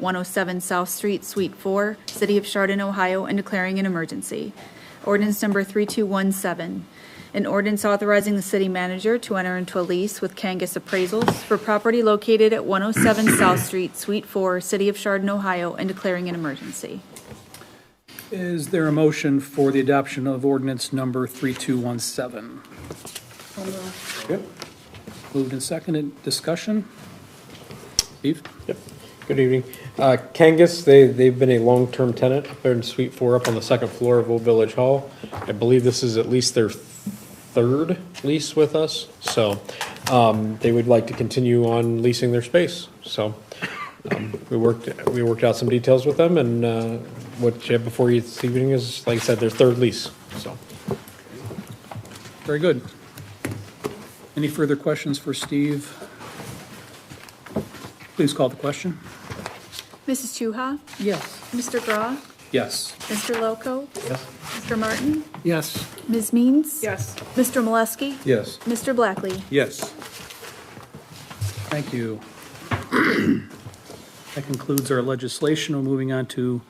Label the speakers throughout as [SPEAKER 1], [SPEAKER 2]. [SPEAKER 1] 107 South Street, Suite 4, City of Chardon, Ohio, and declaring an emergency. Ordinance number 3217, an ordinance authorizing the city manager to enter into a lease with Kangas Appraisals for property located at 107 South Street, Suite 4, City of Chardon, Ohio, and declaring an emergency.
[SPEAKER 2] Is there a motion for the adoption of ordinance number 3217? Moved and seconded, discussion? Steve?
[SPEAKER 3] Good evening. Uh, Kangas, they, they've been a long-term tenant up there in Suite Four, up on the second floor of Old Village Hall. I believe this is at least their third lease with us, so um, they would like to continue on leasing their space. So um, we worked, we worked out some details with them, and uh, what you have before you this evening is, like I said, their third lease, so.
[SPEAKER 2] Very good. Any further questions for Steve? Please call the question.
[SPEAKER 1] Mrs. Chuha?
[SPEAKER 2] Yes.
[SPEAKER 1] Mr. Grau?
[SPEAKER 2] Yes.
[SPEAKER 1] Mr. Loco?
[SPEAKER 3] Yes.
[SPEAKER 1] Mr. Martin?
[SPEAKER 2] Yes.
[SPEAKER 1] Ms. Means? Yes. Mr. Molesky?
[SPEAKER 3] Yes.
[SPEAKER 1] Mr. Blackley?
[SPEAKER 2] Yes. Thank you. That concludes our legislation. We're moving on to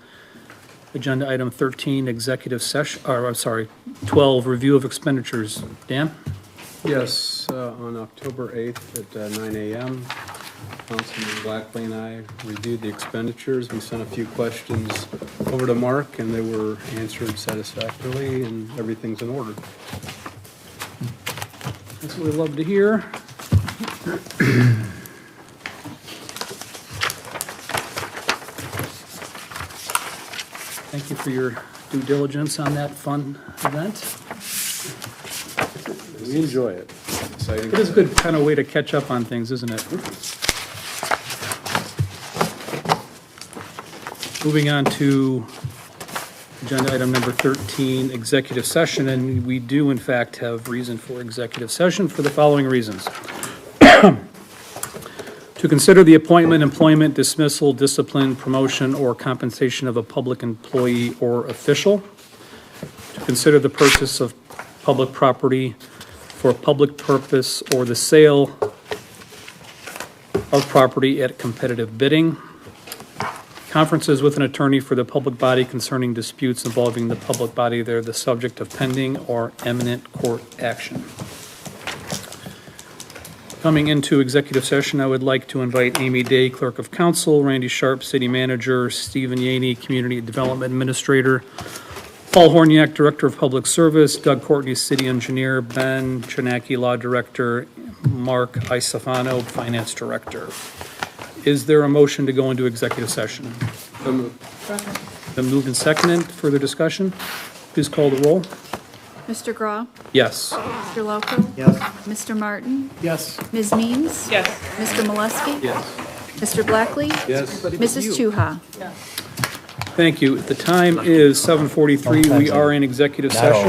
[SPEAKER 2] agenda item 13, executive session, or, I'm sorry, 12, review of expenditures. Dan?
[SPEAKER 4] Yes, uh, on October 8th at uh, 9 AM, Councilman Blackley and I reviewed the expenditures. We sent a few questions over to Mark, and they were answered satisfactorily, and everything's in order.
[SPEAKER 2] That's what we love to hear. Thank you for your due diligence on that fun event.
[SPEAKER 4] We enjoy it. Exciting.
[SPEAKER 2] It is a good kind of way to catch up on things, isn't it? Moving on to agenda item number 13, executive session, and we do in fact have reason for executive session for the following reasons. To consider the appointment, employment, dismissal, discipline, promotion, or compensation of a public employee or official. To consider the purchase of public property for a public purpose or the sale of property at competitive bidding. Conferences with an attorney for the public body concerning disputes involving the public body that are the subject of pending or imminent court action. Coming into executive session, I would like to invite Amy Day, Clerk of Council, Randy Sharp, City Manager, Stephen Yaney, Community Development Administrator, Paul Horniak, Director of Public Service, Doug Courtney, City Engineer, Ben Chinaki, Law Director, Mark Isafano, Finance Director. Is there a motion to go into executive session? Been moved and seconded, further discussion? Please call the roll.
[SPEAKER 1] Mr. Grau?
[SPEAKER 2] Yes.
[SPEAKER 1] Mr. Loco?
[SPEAKER 4] Yes.
[SPEAKER 1] Mr. Martin?
[SPEAKER 2] Yes.
[SPEAKER 1] Ms. Means? Yes. Mr. Molesky?
[SPEAKER 4] Yes.
[SPEAKER 1] Mr. Blackley?
[SPEAKER 4] Yes.
[SPEAKER 1] Mrs. Chuha?
[SPEAKER 2] Thank you. The time is 7:43. We are in executive session.